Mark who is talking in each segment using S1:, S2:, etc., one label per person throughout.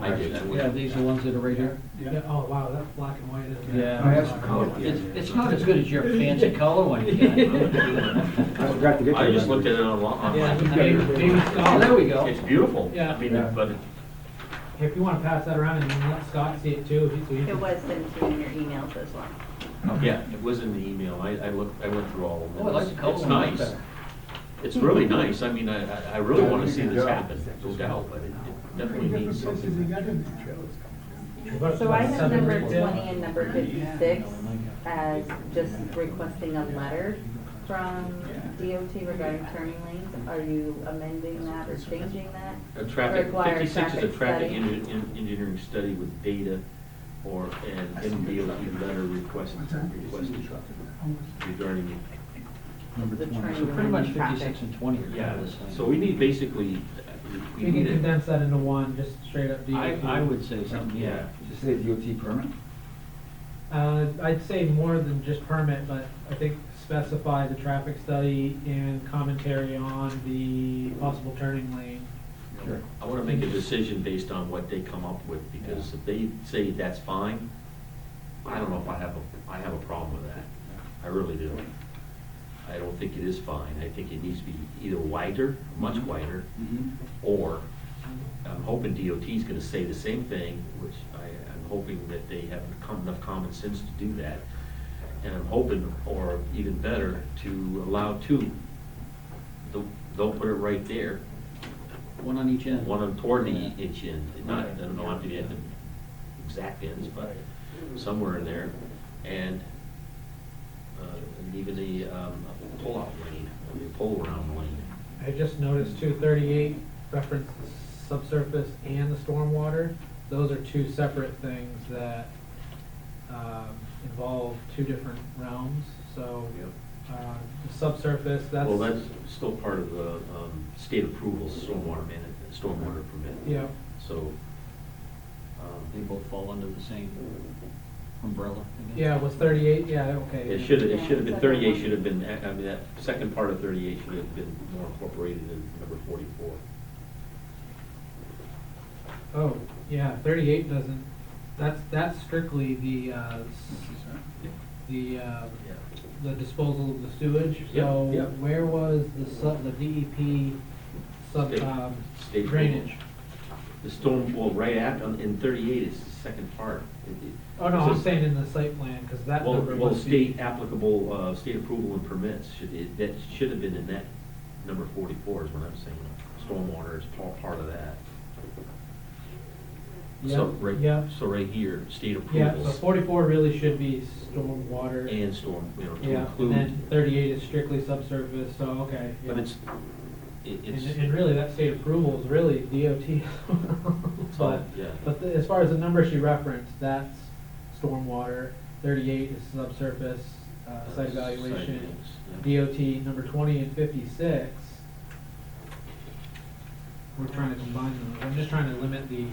S1: I do too.
S2: Yeah, these are the ones that are right here.
S3: Yeah, oh, wow, that's black and white, isn't it? Oh,
S2: Yeah.
S4: I asked for color.
S2: It's, it's not as good as your fancy color one you got.
S4: I forgot to get to
S1: I just
S4: that.
S1: looked at it online.
S3: Yeah,
S2: I mean, maybe- oh, there we go.
S1: It's beautiful.
S3: Yeah.
S1: I mean, it- but it-
S3: If you wanna pass that around and let Scott see it too, so he
S5: It
S3: can.
S5: was sent to your emails as well.
S1: yeah, it was in the email. I, I looked, I went through all of them.
S2: Oh, I like the color
S1: It's
S2: one much
S1: nice.
S2: better.
S1: It's really nice. I mean, I, I- I really
S4: Yeah,
S1: want
S4: you
S1: to see
S4: can
S1: this
S4: go.
S1: happen, no doubt, but it it definitely needs something.
S3: But-
S5: So I have
S3: seven
S5: number
S3: people.
S5: twenty and number fifty-six as just requesting a letter from DOT regarding turning lanes. Are you amending that or changing that?
S1: A traffic,
S5: Require
S1: fifty-six is a
S5: traffic
S1: traffic
S5: study.
S1: engi- en- engineering study with data or an MDOT letter request, requested regarding,
S4: Number
S5: The
S4: 20.
S2: So pretty much fifty-six
S5: Traffic.
S2: and twenty are kind
S1: yeah.
S2: of the same.
S1: So we need basically, we
S3: You can
S1: need a,
S3: condense that into one, just straight up E DOT.
S2: I, I would say something, yeah.
S1: yeah.
S4: Just say DOT permit?
S3: Uh, I'd say more than just permit, but I think specify the traffic study and commentary on the possible turning lane.
S4: Sure.
S1: I want to make a decision based on what they come up with, because if they say that's fine, I don't know if I have a, I have a problem with that. I really do. I don't think it is fine. I think it needs to be either wider, much
S2: Mm-hmm.
S1: wider, or I'm hoping DOT is gonna say the same thing, which I, I'm hoping that they have com- enough common sense to do that. And I'm hoping, or even better, to allow two, They'll- they'll put it right there,
S2: One on each end.
S1: one on toward the each end, not, I don't know, have to be at the exact ends, but somewhere in there. And, uh, and even the, um, pull-out lane, or the pull-around lane.
S3: I just noticed two thirty-eight referenced the subsurface and the stormwater. Those are two separate things that, um, involve two different realms, so, uh, the subsurface, that's.
S1: Well, that's still part of the, um, state approval, stormwater man, stormwater permit.
S3: Yeah,
S1: So,
S2: They
S1: um,
S2: both fall under the same umbrella. I guess.
S3: yeah, it was thirty-eight, yeah, okay.
S1: it
S3: yeah.
S1: should, it should have been, thirty-eight should have been, I mean, that second part of thirty-eight should have been more incorporated in number forty-four.
S3: Oh, yeah, thirty-eight doesn't, that's, that's strictly the, uh, s- the, uh, the disposal of the sewage.
S1: Yeah,
S3: So
S1: yeah.
S3: where was the sub, the DEP sub,
S1: State-
S3: um,
S1: state
S3: drainage?
S1: The storm, well, right after, in thirty-eight is the second part. It- it-
S3: Oh, no, I'm
S1: so-
S3: saying in the site plan, because that
S1: Well,
S3: number
S1: well,
S3: must be.
S1: state applicable, uh, state approval and permits, should, it- that should have been in that number forty-four is what I'm saying. Stormwater is part, part of that. So,
S3: Yeah,
S1: right,
S3: yeah.
S1: so right here, state
S3: Yeah, so
S1: approvals
S3: forty-four really should be stormwater.
S1: and storm, you know, to
S3: Yeah, and
S1: include,
S3: then thirty-eight is strictly subsurface, so, okay. yeah.
S1: but it's, it-
S3: And,
S1: it's,
S3: and really, that state approval is really DOT.
S1: it's all,
S3: But,
S1: yeah.
S3: but the- as far as the number she referenced, that's stormwater, thirty-eight is subsurface, uh, site evaluation.
S1: Site, yeah.
S3: DOT number twenty and fifty-six. We're trying to combine them, I'm just trying to limit the,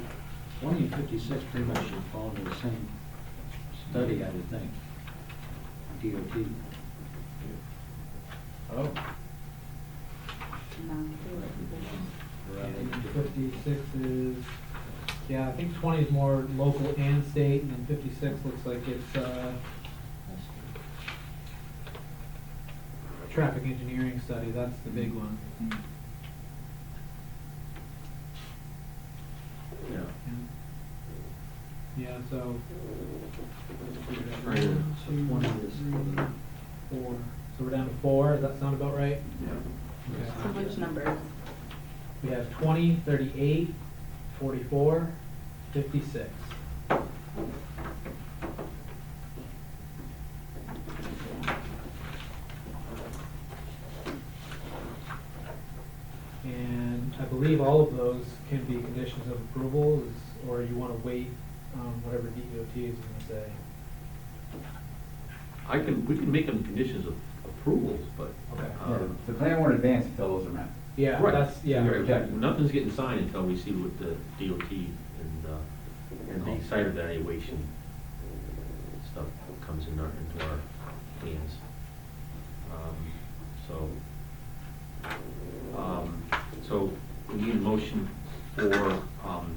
S2: Twenty and fifty-six pretty much should fall under the same study, I would think. DOT. Oh.
S3: and fifty-six is, yeah, I think twenty is more local and state, and then fifty-six looks like it's, uh, traffic engineering study, that's the big one.
S1: Yeah.
S3: Yeah, so.
S1: Right.
S2: So twenty is for the.
S3: Four, so we're down to four, does that sound about right?
S5: So
S3: Okay.
S5: which numbers?
S3: We have twenty, thirty-eight, forty-four, fifty-six. And I believe all of those can be conditions of approval, is- or you wanna wait, um, whatever DOT is gonna say.
S1: I can, we can make them conditions of approvals, but.
S3: Okay.
S4: Yeah,
S1: um,
S4: The plan won't advance until those are met.
S3: Yeah,
S1: Right.
S3: that's, yeah.
S1: Right,
S4: Okay.
S1: Nothing's getting signed until we see what the DOT and, uh, and the site evaluation stuff comes in our, into our hands. Um, So, um, so we need a motion for, um,